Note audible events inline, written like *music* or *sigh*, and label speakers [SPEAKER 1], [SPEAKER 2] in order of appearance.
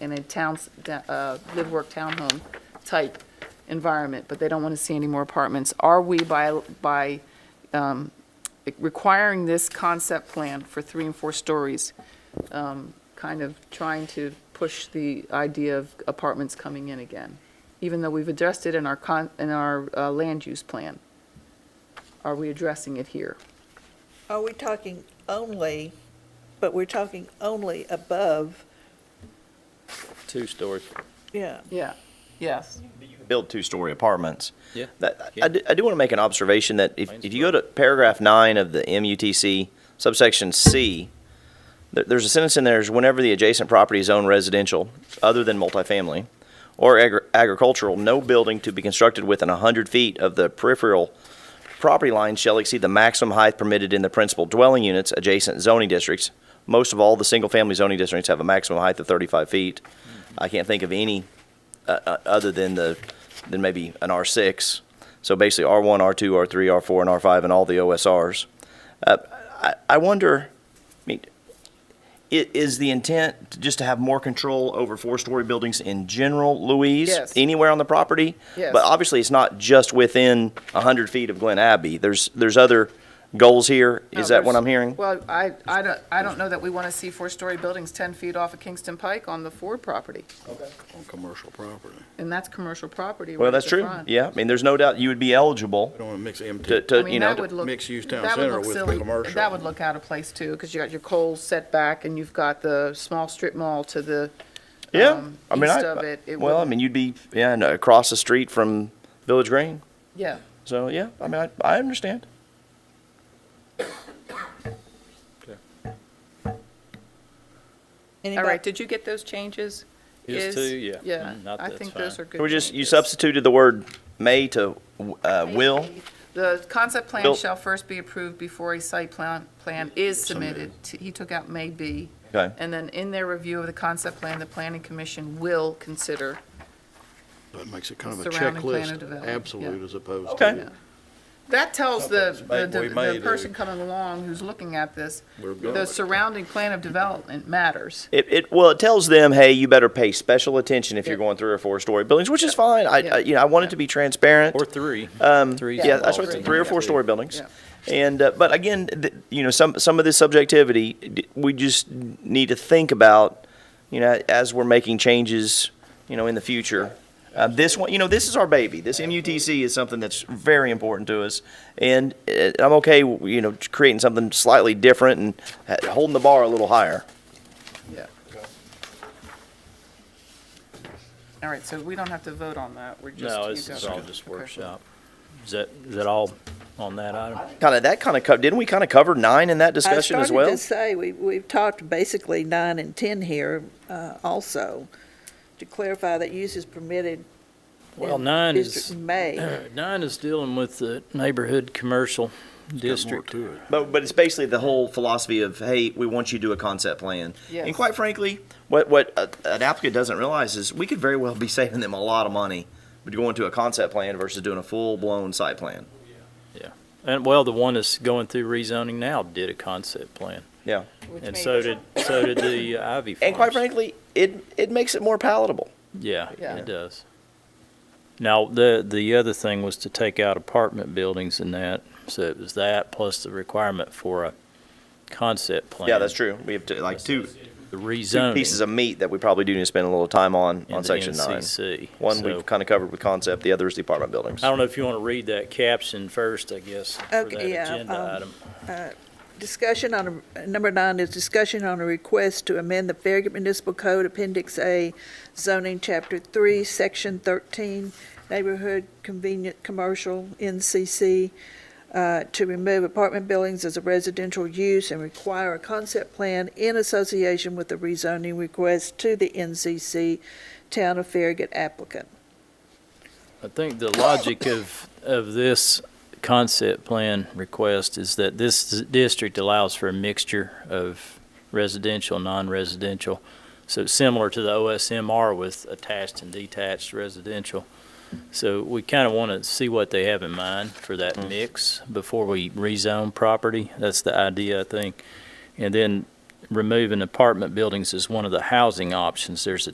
[SPEAKER 1] in a town's, uh, live-work townhome type environment, but they don't want to see any more apartments. Are we by, by um, requiring this concept plan for three and four stories, um, kind of trying to push the idea of apartments coming in again? Even though we've addressed it in our con, in our uh, land use plan, are we addressing it here?
[SPEAKER 2] Are we talking only, but we're talking only above,
[SPEAKER 3] Two stories.
[SPEAKER 2] yeah.
[SPEAKER 1] Yeah, yes.
[SPEAKER 4] build two-story apartments.
[SPEAKER 3] Yeah.
[SPEAKER 4] That,
[SPEAKER 3] Yeah.
[SPEAKER 4] I do, want to make an observation that if,
[SPEAKER 3] Mine's
[SPEAKER 4] if you go to paragraph nine of the MUTC subsection C, there, there's a sentence in there is whenever the adjacent property is owned residential, other than multifamily, or agri- agricultural, no building to be constructed within hundred feet of the peripheral property line shall exceed the maximum height permitted in the principal dwelling units adjacent zoning districts. Most of all, the single-family zoning districts have a maximum height of thirty-five feet. I can't think of any uh, other than the, than maybe an R6. So basically, R1, R2, R3, R4, and R5, and all the OSRs. Uh, I, I wonder, I mean, i- is the intent just to have more control over four-story buildings in general, Louise?
[SPEAKER 1] Yes.
[SPEAKER 4] Anywhere on the property?
[SPEAKER 1] Yes.
[SPEAKER 4] But obviously, it's not just within 100 feet of Glen Abbey. There's, there's other goals here. Is
[SPEAKER 1] No,
[SPEAKER 4] that what
[SPEAKER 1] there's-
[SPEAKER 4] I'm hearing?
[SPEAKER 1] Well, I, I don't, I don't know that we want to see four-story buildings 10 feet off of Kingston Pike on the Ford property,
[SPEAKER 5] on commercial property.
[SPEAKER 1] and that's commercial property right
[SPEAKER 4] Well,
[SPEAKER 1] at
[SPEAKER 4] that's
[SPEAKER 1] the
[SPEAKER 4] true.
[SPEAKER 1] front.
[SPEAKER 4] Yeah, I mean, there's no doubt you would be eligible
[SPEAKER 5] I don't want to mix
[SPEAKER 4] to,
[SPEAKER 5] empty.
[SPEAKER 1] I
[SPEAKER 4] to,
[SPEAKER 1] mean,
[SPEAKER 4] you know,
[SPEAKER 1] that
[SPEAKER 4] to-
[SPEAKER 1] would look-
[SPEAKER 5] mixed-use town
[SPEAKER 1] that would
[SPEAKER 5] center
[SPEAKER 1] look
[SPEAKER 5] with
[SPEAKER 1] silly.
[SPEAKER 5] commercial.
[SPEAKER 1] That would look out of place, too, because you got your Kohl's set back, and you've got the small strip mall to the,
[SPEAKER 4] Yeah,
[SPEAKER 1] um,
[SPEAKER 4] I mean,
[SPEAKER 1] east
[SPEAKER 4] I,
[SPEAKER 1] of it, it
[SPEAKER 4] well, I
[SPEAKER 1] wouldn't-
[SPEAKER 4] mean, you'd be, yeah, and across the street from Village Green,
[SPEAKER 1] yeah.
[SPEAKER 4] so, yeah, I mean, I, I understand.
[SPEAKER 1] All right,
[SPEAKER 2] Anybody,
[SPEAKER 1] did you get those changes?
[SPEAKER 3] Is two, yeah.
[SPEAKER 1] Yeah,
[SPEAKER 3] Mm, not-
[SPEAKER 1] I
[SPEAKER 3] that's
[SPEAKER 1] think those
[SPEAKER 3] fine.
[SPEAKER 1] are good.
[SPEAKER 4] We just, you
[SPEAKER 1] changes.
[SPEAKER 4] substituted the word may to, uh, will,
[SPEAKER 1] The concept plan
[SPEAKER 4] Bill-
[SPEAKER 1] shall first be approved before a site plan, plan is submitted. T- He took out may be.
[SPEAKER 4] Okay.
[SPEAKER 1] And then in their review of the concept plan, the planning commission will consider,
[SPEAKER 5] That makes it kind of a
[SPEAKER 1] Surrounding plan of
[SPEAKER 5] checklist,
[SPEAKER 1] development,
[SPEAKER 5] absolute
[SPEAKER 1] yeah.
[SPEAKER 5] as opposed
[SPEAKER 4] Okay.
[SPEAKER 5] to,
[SPEAKER 1] that tells the,
[SPEAKER 5] Something's
[SPEAKER 1] the
[SPEAKER 5] made- we may
[SPEAKER 1] the
[SPEAKER 5] do.
[SPEAKER 1] person coming along who's looking at this,
[SPEAKER 5] We're going
[SPEAKER 1] the
[SPEAKER 5] with it.
[SPEAKER 1] surrounding plan of development matters.
[SPEAKER 4] it, it, well, it tells them, hey, you better pay special attention if you're
[SPEAKER 1] Yeah.
[SPEAKER 4] going three or four-story buildings, which is fine, I,
[SPEAKER 1] Yeah.
[SPEAKER 4] I, you know, I wanted to be transparent.
[SPEAKER 3] Or three.
[SPEAKER 4] Um,
[SPEAKER 3] Three
[SPEAKER 4] yeah, that's
[SPEAKER 3] small
[SPEAKER 4] what,
[SPEAKER 3] things.
[SPEAKER 4] three or four-story buildings.
[SPEAKER 1] Yeah.
[SPEAKER 4] And, uh, but again, th- you know, some, some of this subjectivity, d- we just need to think about, you know, as we're making changes, you know, in the future. Uh, this one, you know, this is our baby. This MUTC is something that's very important to us. And uh, I'm okay, you know, creating something slightly different and ha- holding the bar a little higher.
[SPEAKER 1] Yeah. All right, so we don't have to vote on that, we're just.
[SPEAKER 3] No,
[SPEAKER 1] you
[SPEAKER 3] this
[SPEAKER 1] guys
[SPEAKER 3] is
[SPEAKER 1] are-
[SPEAKER 3] all just
[SPEAKER 1] okay.
[SPEAKER 3] workshop. Is that, is that all on that item?
[SPEAKER 4] Kind of, that kind of, co- didn't we kind of cover nine in that
[SPEAKER 2] I
[SPEAKER 4] discussion as
[SPEAKER 2] started
[SPEAKER 4] well?
[SPEAKER 2] to say, we, we've talked basically nine and 10 here uh, also, to clarify that use is permitted
[SPEAKER 3] Well,
[SPEAKER 2] in
[SPEAKER 3] nine
[SPEAKER 2] District
[SPEAKER 3] is, *clears throat*
[SPEAKER 2] May.
[SPEAKER 3] Uh, nine is dealing with the neighborhood commercial
[SPEAKER 5] there's more
[SPEAKER 3] district.
[SPEAKER 5] to it.
[SPEAKER 4] But, but it's basically the whole philosophy of, hey, we want you to do a concept plan.
[SPEAKER 1] Yes.
[SPEAKER 4] And quite frankly, what, what uh, an applicant doesn't realize is we could very well be *laughs* saving them a lot of money but going to a concept plan versus doing a full-blown site plan.
[SPEAKER 3] And well, the one that's going through rezoning now did a concept plan.
[SPEAKER 4] Yeah.
[SPEAKER 3] And so did, so did the
[SPEAKER 4] *laughs*
[SPEAKER 3] Ivy Farms.
[SPEAKER 4] And quite frankly, it, it makes it more palatable.
[SPEAKER 3] Yeah,
[SPEAKER 1] Yeah.
[SPEAKER 3] it does. Now, the, the other thing was to take out apartment buildings and that, so it was that plus the requirement for a concept plan.
[SPEAKER 4] Yeah, that's true. We have to, like two,
[SPEAKER 3] The
[SPEAKER 4] two
[SPEAKER 3] rezoning.
[SPEAKER 4] pieces of meat that we probably do need to spend a little time on,
[SPEAKER 3] in
[SPEAKER 4] on
[SPEAKER 3] the
[SPEAKER 4] section nine.
[SPEAKER 3] NCC.
[SPEAKER 4] One
[SPEAKER 3] So,
[SPEAKER 4] we've kind of covered with concept, the other is the apartment buildings.
[SPEAKER 3] I don't know if you want to read that caption first, I guess, for that
[SPEAKER 2] Okay, yeah,
[SPEAKER 3] agenda
[SPEAKER 2] um,
[SPEAKER 3] item.
[SPEAKER 2] Discussion on, a- number nine is discussion on a request to amend the Farragut Municipal Code Appendix A, zoning chapter three, section thirteen, neighborhood convenient commercial, NCC, uh, to remove apartment buildings as a residential use and require a concept plan in association with the rezoning request to the NCC Town of Farragut applicant.
[SPEAKER 3] I think the logic of, of this concept plan request is that this district allows for a mixture of residential, non-residential. So it's similar to the OSMR with attached and detached residential. So we kind of want to see what they have in mind for that mix before we rezone property. That's the idea, I think. And then removing apartment buildings is one of the housing options. There's a